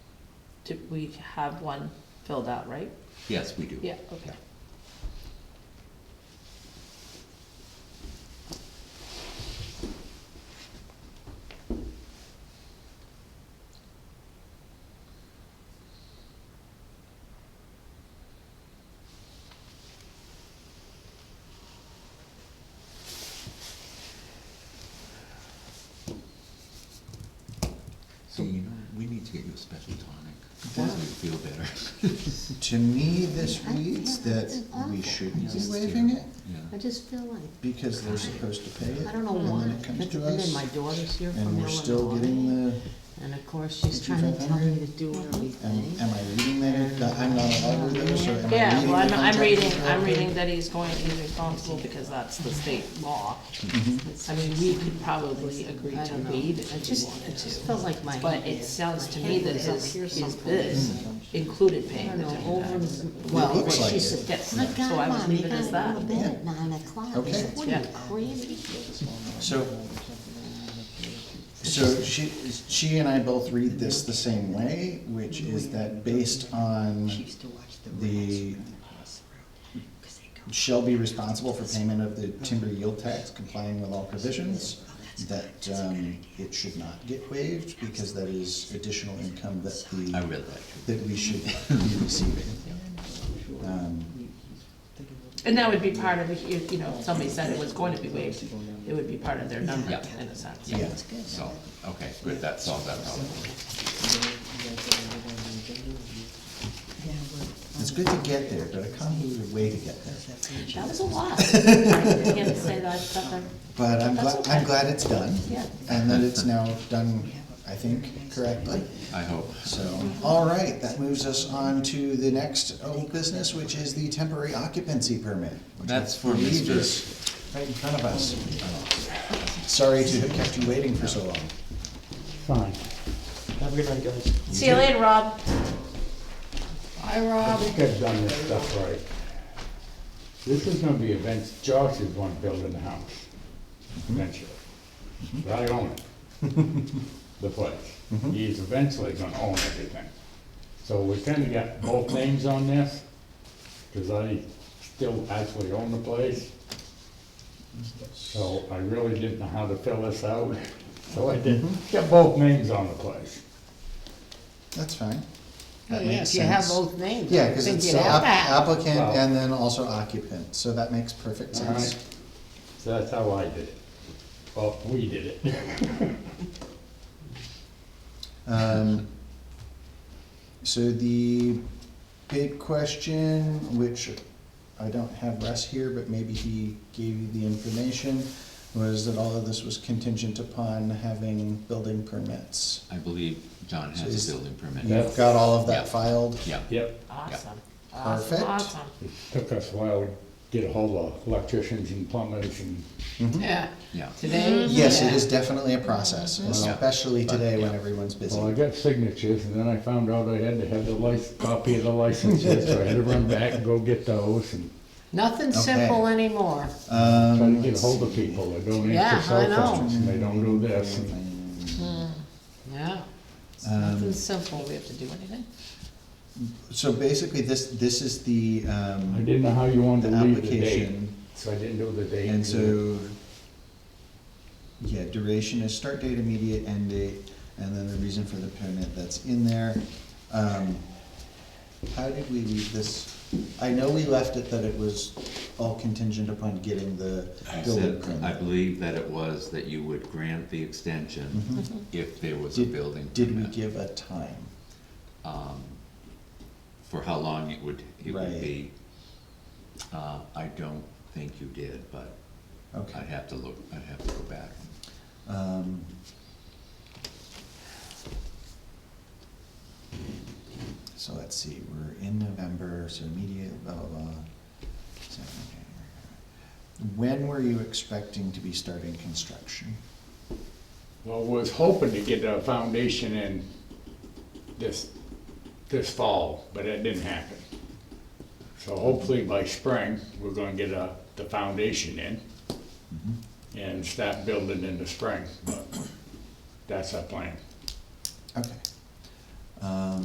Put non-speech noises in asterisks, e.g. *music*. Did we have one filled out, right? Yes, we do. Yeah, okay. So, you know, we need to get you a special tonic. This will feel better. To me, this reads that we shouldn't be waiving it Yeah. I just feel like, because they're supposed to pay it. I don't know and then why. it comes to And then us, my daughter's here from And we're still Illinois. getting the, And of course, she's trying to tell me to do everything. am, am I reading that, I'm not allowed to read those, or am I reading the Yeah, well, I'm, contract I'm reading, I'm correctly? reading that he's going, he's responsible because that's the state law. Mm-hmm. I mean, we could probably agree I to don't know. waive it I if we just- wanted it just to. felt like my. But it sounds to my me head that was up his, here his someplace. biz included I paying don't the know, town over, tax. well, looks what like she it. said, Yes, my so I God, would Mom, leave you it gotta as go to that. bed at nine o'clock. I Okay. said, what are you Yeah. crazy? So, so she, she and I both read this the same way, which is that based on the shall be responsible for payment of the timber yield tax complying with all provisions, that, um, it should not get waived because that is additional income that I the, really like it. that we should *laughs* be receiving. Um, And that would be part of, the- if, you know, if somebody said it was going to be waived, it would be part of their number Yeah. in a sense. Yeah, So, okay, good, that solved that problem. it's good to get there, but a convoluted way to get there. That was a *laughs* lot. I can't say that I've got the- But I'm That's glad, okay. I'm glad it's done. Yeah. And that it's now done, I think, correctly. I hope. So, all right, that moves us on to the next old business, which is the temporary occupancy permit. which I That's for believe Mr. is Right in front of us. Sorry to have kept you waiting for so long. Fine. Have a good night, guys. See you later, Rob. I think I've done this stuff right. This is gonna be events, Josh is gonna build in the house eventually. But I own it, the place. He's eventually gonna own everything. So we kinda got both names on this, cause I still actually own the place. So I really didn't know how to fill this out, *laughs* so I did, got both names on the place. That's fine. Oh, That yeah, makes if you have sense. both names. Yeah, I because think it's you'd the app- have that. applicant Wow. and then also occupant, so that makes perfect All right, sense. so that's how I did it. Well, we did it. *laughs* Um, So the big question, which I don't have Russ here, but maybe he gave you the information, was that all of this was contingent upon having building permits. I believe John So has is- a building permit. You've got all of Yeah. that filed? Yeah, Yep, Awesome. Perfect. Awesome, awesome. took us a while to get a hold of electricians and plumbers and, Yeah. yeah. Today? Mm-hmm. Yes, it Yeah. Mm-hmm. is definitely a process, especially today when everyone's well, I busy. got signatures and then I found out I had to have the lic, copy of the licenses, so I had to run back and go get those and Nothing simple anymore. try to get hold of people that don't Yeah, answer I cell know. phones and they don't do this. Mm-hmm. and- Mm-hmm. Yeah. It's Um, Nothing simple. We have to do anything? So basically, this, this is the, I um, didn't know how you the wanted to leave the date, application. so I didn't do the date. And so, yeah, duration is start date, immediate end date, and then the reason for the permit that's in there. Um, How did we leave this? I know we left it that it was all contingent upon getting the I building said, I permit. believe that it was that you would grant the extension if there was a Did- building Did we permit. give a time? um, for how long it would, it would Right. be. Uh, I don't think you did, but I'd Okay. have to look, I'd have to go back. um, So let's see, we're in November, so immediate, blah, blah, blah. So, okay. When were you expecting to be starting construction? Well, was hoping to get a foundation in this, this fall, but it didn't happen. So hopefully by spring, we're gonna get a, the foundation in and start building in the spring, but that's our plan. Okay. Um,